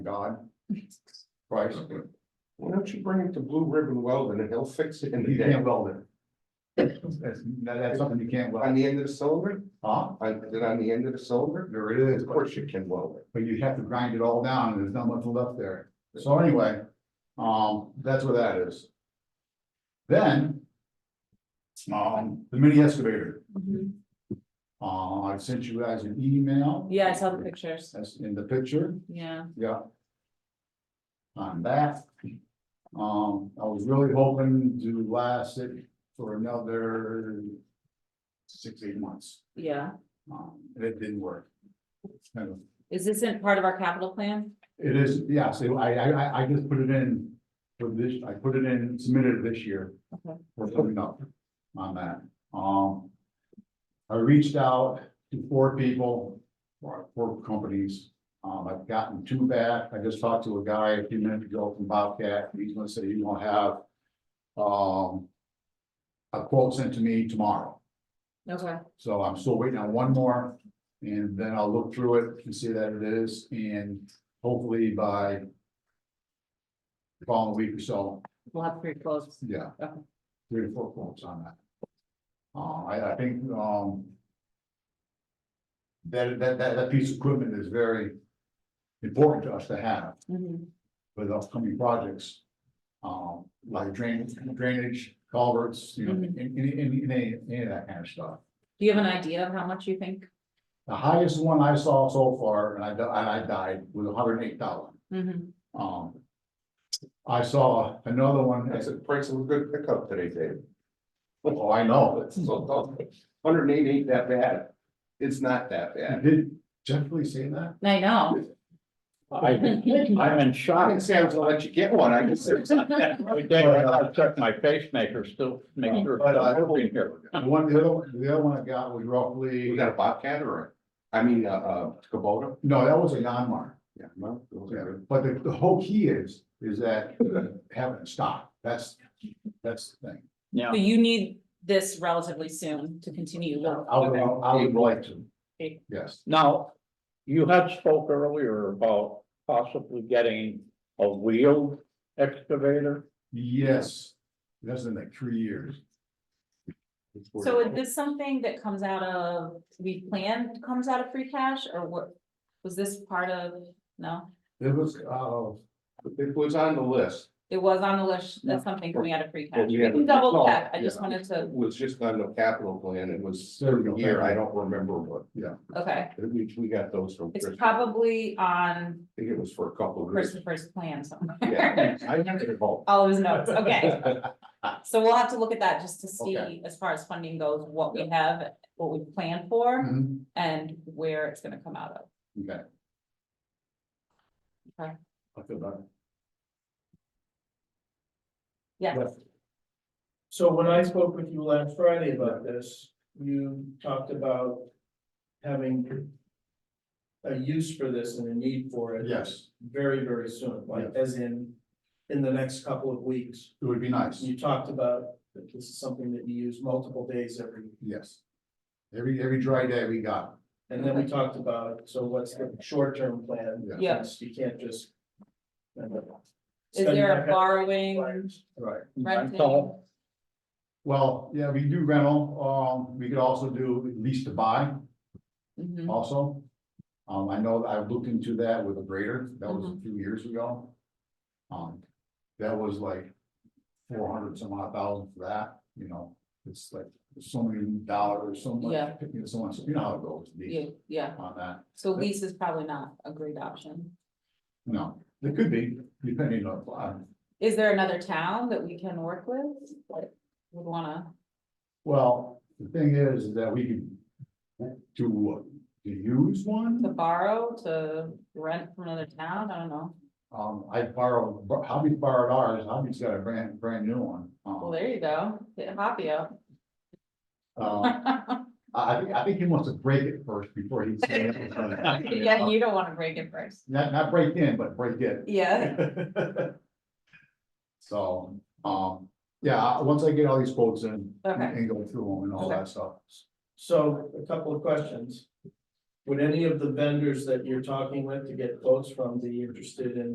God. Christ. Why don't you bring it to Blue Ribbon Welding and he'll fix it in the You day. can't weld it. That's, that- that's something you can't On weld, the end of the cylinder, huh? on, then on the end of the cylinder, There it is, of course you can weld it. but you have to grind it all down, and there's not much left there. So anyway, um, that's where that is. Then. Um, the mini excavator, Mhm. uh, I sent you guys an email. Yeah, I saw the pictures, That's in the picture, yeah. yeah. On that. Um, I was really hoping to last it for another. Six, eight months, Yeah, um, and it didn't work. It's kind of is this in part of our capital plan? It is, yeah, so I, I, I, I just put it in for this, I put it in, submitted it this year. Okay. We're coming up on that, um. I reached out to four people, or four companies, um, I've gotten two back, I just talked to a guy a few minutes ago from Bobcat, he's gonna say he's gonna have. Um. A quote sent to me tomorrow. Okay, So I'm still waiting on one more, and then I'll look through it and see that it is, and hopefully by. the Following week or so, we'll have three quotes, yeah, Okay. three to four quotes on that. Uh, I, I think, um. That, that, that, that piece of equipment is very important to us to have Mhm. with upcoming projects. Um, like drainage, drainage, culverts, you know, Mhm. any, any, any, any of that kind of stuff. do you have an idea of how much you think? The highest one I saw so far, and I, di- and I died, was hundred and eight thousand, Mhm. um. I saw another one, I That's said, the price of a good pickup today, Dave. oh, I know, That's so tough. Hundred and eight ain't that bad. It's not that I bad. did definitely say that. I know, I, I'm in I shock. didn't say I was gonna let you get one, I just said. Every day I gotta check my pacemaker still, make sure it's not working here. The one, the other, one- the other one I got was roughly, You got a Bobcat or, a- I mean, uh, uh, Kubota? no, that was a non-mark, Yeah, no, those are good. but the, the whole key is, is that having a stop, that's, that's the thing. Yeah, so you need this relatively soon to continue. work. I would, I would like to, Okay. yes, now, you had spoke earlier about possibly getting a wheeled excavator. yes, that's in like three years. So is this something that comes out of, we planned, comes out of free cash, or what? Was this part of, no, It was, uh, It was on the list. it was on the list, No. that's something coming out of free cash, we we had- can double no, check, I just yeah. wanted It to, was just on the capital plan, it was There we go. certain year, I don't remember what, okay. we, we got those from Chris, It's I probably on think it was for a couple of years. Christopher's plan somewhere. Yeah, I remember the vote. All of his notes, okay. So we'll have to look at that just to see, Okay. as far as funding goes, what we have, what we plan for, mhm, and where it's gonna come out of. okay. Okay. I feel better. Yeah, So when I spoke with you last Friday about this, you talked about having. A use for this and a need for it. Yes, Very, very soon, like as in, in the next couple of weeks. it would be nice, You talked about that this is something that you use multiple days every, yes. Every, every dry day we got, and then we talked about, so what's the short-term plan? Yeah. Yeah. Yes, You can't just. is there a borrowing, right. renting? Rental. Well, yeah, we do rental, um, we could also do lease to buy Mhm. also. Um, I know I've looked into that with a grader, that was a Mm-hmm. few years ago. Um, that was like four hundred some odd thousand for that, you know, it's like so many dollars, so much, Yeah. you know, so much, you know how it goes. Yeah, yeah, On that. so lease is probably not a great option. No, it could be, depending on, on- Is there another town that we can work with, that would wanna, well, the thing is that we could. To, what? to use to one, borrow, to rent from another town, I don't know, um, I borrowed, Hobby borrowed ours, Hobby's got a brand, brand new one. um, well, there you go, hit Hoppy up. uh, I, I think, I think he wants to break it first before he. Yeah, you don't wanna break it first. Not, not break in, but break it. Yeah, So, um, yeah, I- once I get all these quotes in Okay. and go through them and all Okay. that stuff. So a couple of questions. Would any of the vendors that you're talking with to get quotes from be interested in